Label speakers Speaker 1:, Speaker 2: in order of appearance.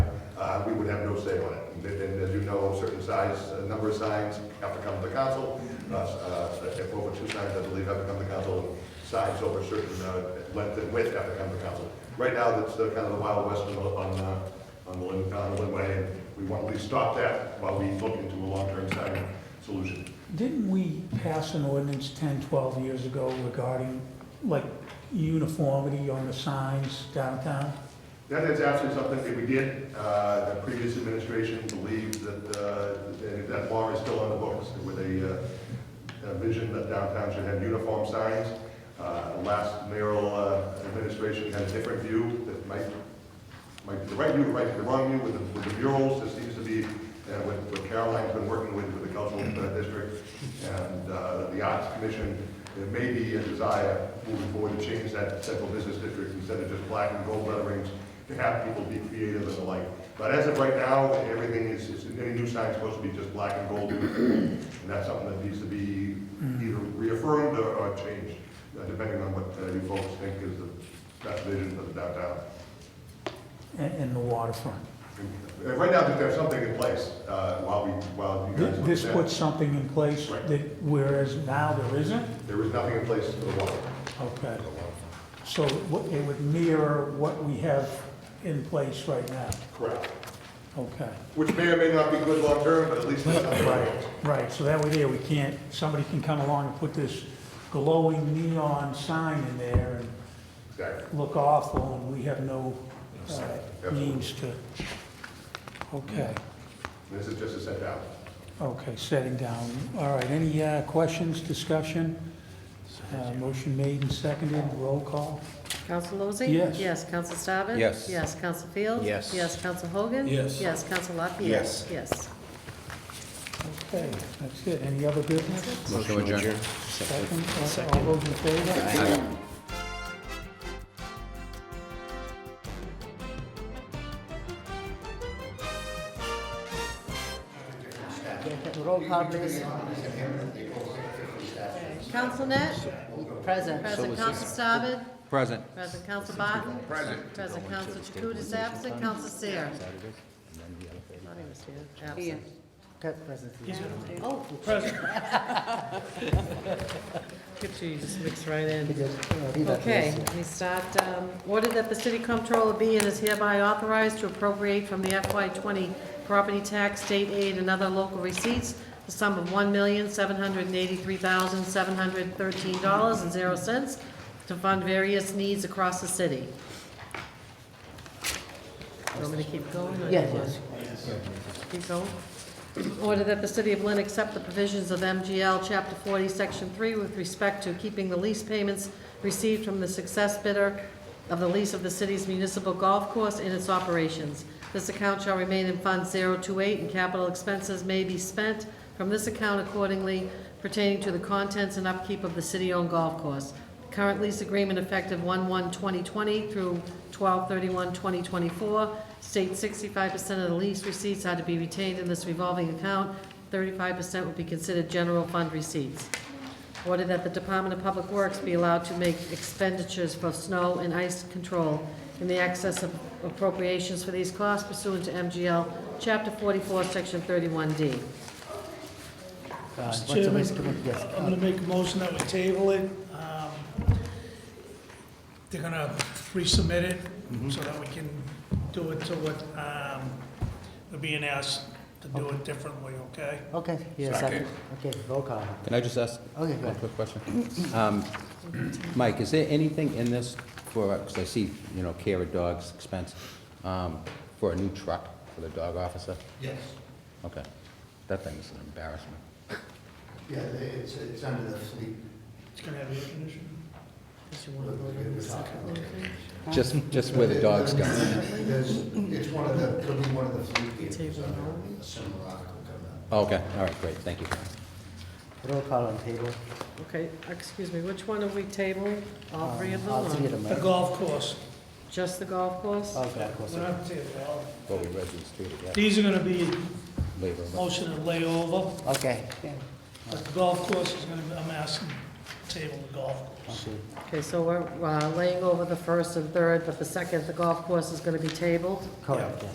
Speaker 1: Uh, stay on it. Then- Then, as you know, certain size, a number of signs have to come to the council. Uh, uh, If over two signs, I believe, have to come to council, signs over certain uh, length and width have to come to council. Right now, that's uh, kind of the wild west on, the- on, uh, on the Lin- on the Linway, and we want to at least stop that while we look into a long-term sign solution.
Speaker 2: Didn't we pass an ordinance 10, 12 years ago regarding, like, uniformity on the signs downtown?
Speaker 1: That is actually something that we did. Uh, The previous administration believed that, uh, that that law is still on the books with a, uh, a vision that downtown should have uniform signs. Uh, Last mayoral uh, administration had a different view that might, might be the right view, might be the wrong view with the, with the murals. This seems to be, uh, what what Caroline's been working with, with the cultural uh, district and uh, the arts commission. There may be a desire moving forward to change that central business district instead of just black and gold letterings to have people be creative and the like. But as of right now, everything is, is- any new sign is supposed to be just black and gold. And that's something that needs to be either reaffirmed or, or changed, uh, depending on what uh, you folks think is the best vision for the downtown.
Speaker 2: And, and the waterfront?
Speaker 1: And, uh, Right now, that there's something in place, uh, while we, while you guys.
Speaker 2: Th-
Speaker 1: look
Speaker 2: This
Speaker 1: at that.
Speaker 2: puts something in place
Speaker 1: Right.
Speaker 2: that, whereas now there isn't?
Speaker 1: There is nothing in place for the water.
Speaker 2: Okay. So it wo- it would mirror what we have in place right now?
Speaker 1: Correct.
Speaker 2: Okay.
Speaker 1: Which may or may not be good long-term, but at least it's something.
Speaker 2: Right, right, so that way there, we can't, somebody can come along and put this glowing neon sign in there and
Speaker 1: Exactly.
Speaker 2: look awful, and we have no uh, means to, okay,
Speaker 1: This is just a set down.
Speaker 2: okay, setting down. All right, any uh, questions, discussion? Uh, Motion made and seconded, roll call?
Speaker 3: Counsel Lozey?
Speaker 2: Yes.
Speaker 3: Yes, Counsel Staben?
Speaker 4: Yes.
Speaker 3: Yes, Counsel Field?
Speaker 4: Yes.
Speaker 3: Yes, Counsel Hogan?
Speaker 4: Yes.
Speaker 3: Yes, Counsel Lapierre?
Speaker 4: Yes.
Speaker 3: Yes.
Speaker 2: Okay, that's it, any other business?
Speaker 4: Motion to adjourn.
Speaker 2: Second, all- all those in favor?
Speaker 5: Roll call, please.
Speaker 3: Counsel Net?
Speaker 5: Present.
Speaker 3: Present Counsel Staben?
Speaker 4: Present.
Speaker 3: Present Counsel Barton? Present. Present Counsel Chakutis, absent Counsel Sayre? Thought he was here, absent.
Speaker 5: Cut present.
Speaker 3: Oh. Present. Get you, you just mix right in. Okay, we start, um, order that the city comptroller be and is hereby authorized to appropriate from the FY twenty property tax, state aid, and other local receipts, the sum of one million, seven hundred and eighty-three thousand, seven hundred and thirteen dollars and zero cents to fund various needs across the city. You want me to keep going? or you
Speaker 5: Yes,
Speaker 3: want-
Speaker 5: yes.
Speaker 3: Keep going. Order that the city of Lynn accept the provisions of MGL Chapter 40, Section 3 with respect to keeping the lease payments received from the success bidder of the lease of the city's municipal golf course and its operations. This account shall remain in Fund 028, and capital expenses may be spent from this account accordingly pertaining to the contents and upkeep of the city-owned golf course. Current lease agreement effective 1/1/2020 through 12/31/2024 states 65% of the lease receipts are to be retained in this revolving account, 35% would be considered general fund receipts. Order that the Department of Public Works be allowed to make expenditures for snow and ice control in the excess of appropriations for these costs pursuant to MGL Chapter 44, Section 31D.
Speaker 5: What's
Speaker 6: Mr.
Speaker 5: the
Speaker 6: Chairman,
Speaker 5: least commitment? Yes.
Speaker 6: I'm gonna make a motion that we table it. Um, They're gonna resubmit it
Speaker 5: Mm-hmm.
Speaker 6: so that we can do it to what, um, we're being asked to do it differently, okay?
Speaker 5: Okay, yes, second. Okay, roll call.
Speaker 4: Can I just ask
Speaker 5: Okay, go
Speaker 4: one
Speaker 5: ahead.
Speaker 4: quick question? Um, Mike, is there anything in this for, because I see, you know, care of dogs expense, um, for a new truck for the dog officer?
Speaker 7: Yes,
Speaker 4: Okay. That thing is an embarrassment.
Speaker 7: yeah, it's, it's under the sleep.
Speaker 6: It's gonna have air conditioning.
Speaker 3: Does you want to vote on the second motion?
Speaker 4: Just, just where the dogs go.
Speaker 7: There's, it's one of the, it'll be one of the sleep vehicles
Speaker 3: Table.
Speaker 7: under a similar article coming up.
Speaker 4: Okay, all right, great, thank you.
Speaker 5: Roll call on table.
Speaker 3: Okay, excuse me, which one are we tabling? All three of
Speaker 5: Um, All three of
Speaker 3: them,
Speaker 5: them,
Speaker 6: The
Speaker 5: right?
Speaker 6: golf course,
Speaker 3: just the golf course?
Speaker 5: Oh, God, of course.
Speaker 6: we're not tabling it all.
Speaker 4: Well, we read these through together
Speaker 6: These are gonna be
Speaker 4: later.
Speaker 6: motion to lay over,
Speaker 5: Okay.
Speaker 6: but the golf course is gonna, be- I'm asking, table the golf course.
Speaker 5: Okay.
Speaker 3: Okay, so we're uh, laying over the first and third, but the second, the golf course is going to be tabled?
Speaker 5: Correct, yes.